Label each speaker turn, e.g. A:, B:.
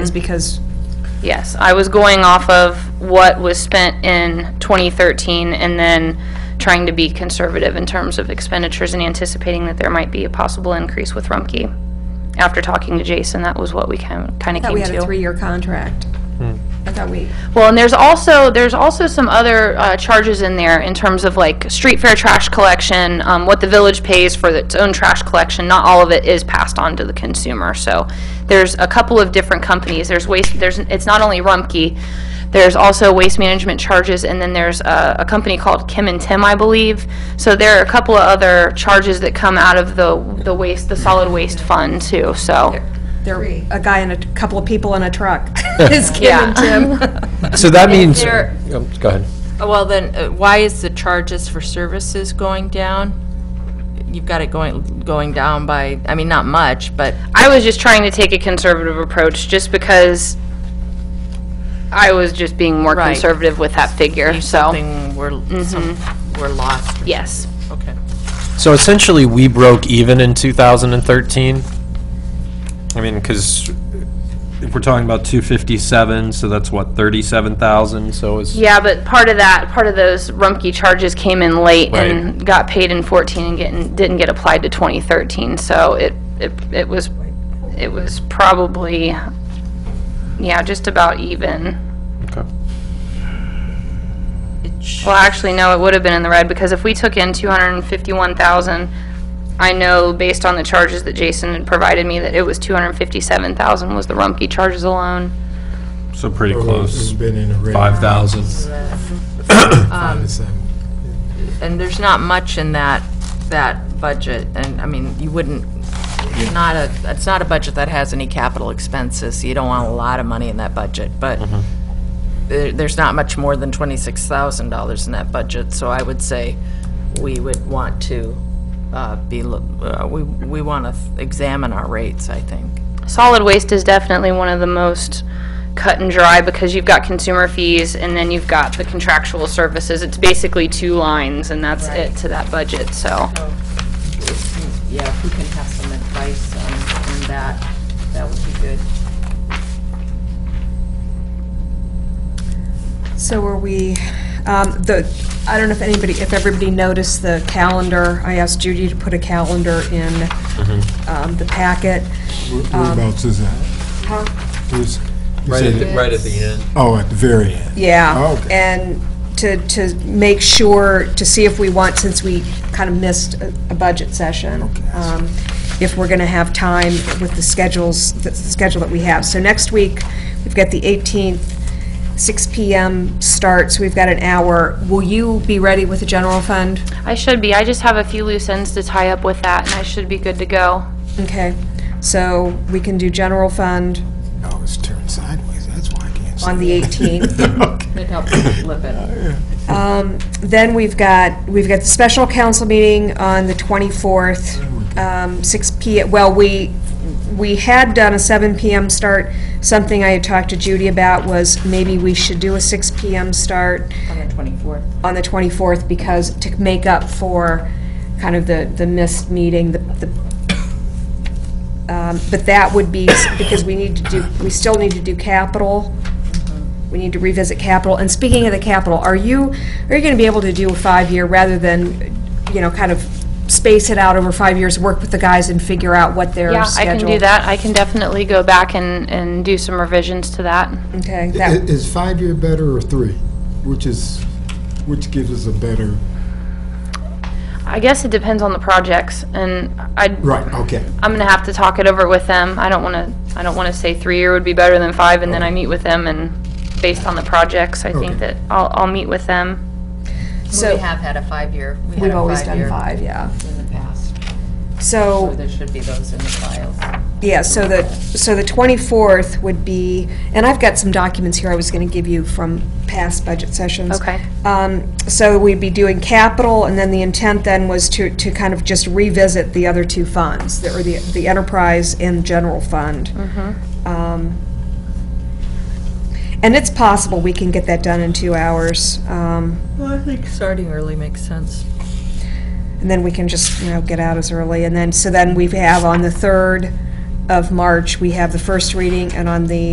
A: is because,
B: Yes, I was going off of what was spent in 2013 and then trying to be conservative in terms of expenditures and anticipating that there might be a possible increase with Rumpke. After talking to Jason, that was what we kind of came
A: that we had a
B: to.
A: three-year contract. I thought we,
B: Well, and there's also, there's also some other uh, charges in there in terms of like street fair trash collection, um, what the village pays for its own trash collection. Not all of it is passed on to the consumer. So there's a couple of different companies. There's waste, there's, it's not only Rumpke. There's also waste management charges, and then there's uh, a, a company called Kim and Tim, I believe. So there are a couple of other charges that come out of the, the waste, the solid waste fund too, so.
A: there, a guy and a couple of people in a truck is Kim and Tim.
C: So that means,
D: there-
C: Um, go ahead.
D: Well, then, uh, why is the charges for services going down? You've got it going, going down by, I mean, not much, but
B: I was just trying to take a conservative approach, just because I was just being more
D: Right.
B: conservative with that figure, so, Mm-hmm.
D: something, we're, some- we're lost.
B: yes.
D: Okay.
C: So essentially, we broke even in 2013. I mean, because if we're talking about 257, so that's what, 37,000, so it's...
B: Yeah, but part of that, part of those Rumpke charges came in late and got paid in 14 and getting, didn't get applied to 2013, so it, it it was, it was probably, yeah, just about even.
C: Okay.
D: It sh-
B: Well, actually, no, it would have been in the red, because if we took in 251,000, I know based on the charges that Jason had provided me, that it was 257,000 was the Rumpke charges alone.
C: So pretty
E: It's
C: close,
E: been in the red.
C: 5,000.
A: Um,
E: Five to seven.
D: And there's not much in that, that budget, and, I mean, you wouldn't, it's not a, it's not a budget that has any capital expenses, you don't want a lot of money in that budget, but there, there's not much more than twenty-six thousand dollars in that budget, so I would say we would want to, uh, be, lo- uh, we, we wanna examine our rates, I think.
B: Solid waste is definitely one of the most cut and dry because you've got consumer fees and then you've got the contractual services. It's basically two lines and that's it to that budget, so.
D: Yeah, if we can have some advice on, on that, that would be good.
A: So are we, um, the, I don't know if anybody, if everybody noticed the calendar. I asked Judy to put a calendar in um, the packet. um,
E: Whereabouts is that? Where's- you
C: Right
E: said
C: at the-
E: it-
C: right at the end.
E: Oh, at the very end.
A: Yeah,
E: Oh, okay.
A: and to, to make sure, to see if we want, since we kind of missed a a budget session, um, if we're going to have time with the schedules, the schedule that we have. So next week, we've got the 18th, 6 PM starts, we've got an hour. Will you be ready with the general fund?
B: I should be, I just have a few loose ends to tie up with that and I should be good to go.
A: Okay, so we can do general fund
E: Oh, it's turned sideways, that's why I can't see.
A: on the 18th.
D: It helps flip it.
A: Then we've got, we've got the special council meeting on the 24th, um, 6 P, well, we, we had done a 7 PM start. Something I had talked to Judy about was maybe we should do a 6 PM start
D: On the 24th.
A: on the 24th because, to make up for kind of the, the missed meeting, the, the, um, but that would be, s- because we need to do, we still need to do capital. We need to revisit capital. And speaking of the capital, are you, are you going to be able to do a five-year rather than, you know, kind of space it out over five years, work with the guys and figure out what their
B: Yeah, I
A: schedule?
B: can do that. I can definitely go back and, and do some revisions to that.
A: Okay,
E: I-
A: that,
E: Is five-year better or three? Which is, which gives us a better,
B: I guess it depends on the projects and I,
E: right, okay.
B: I'm gonna have to talk it over with them. I don't wanna, I don't wanna say three-year would be better than five, and then I meet with them, and based on the projects, I think that I'll, I'll meet with them.
A: so,
D: We have had a five-year. we had
A: we've
D: a
A: always done
D: five-year
A: five, yeah.
D: In the past,
A: So,
D: so there should be those in the files.
A: Yeah, so the, so the 24th would be, and I've got some documents here I was going to give you from past budget sessions.
B: Okay.
A: Um, So we'd be doing capital, and then the intent then was to, to kind of just revisit the other two funds, that were the, the enterprise and general fund. Um, And it's possible we can get that done in two hours, um,
D: Well, I think starting early makes sense.
A: and then we can just, you know, get out as early. And then, so then we have on the 3rd of March, we have the first reading, and on the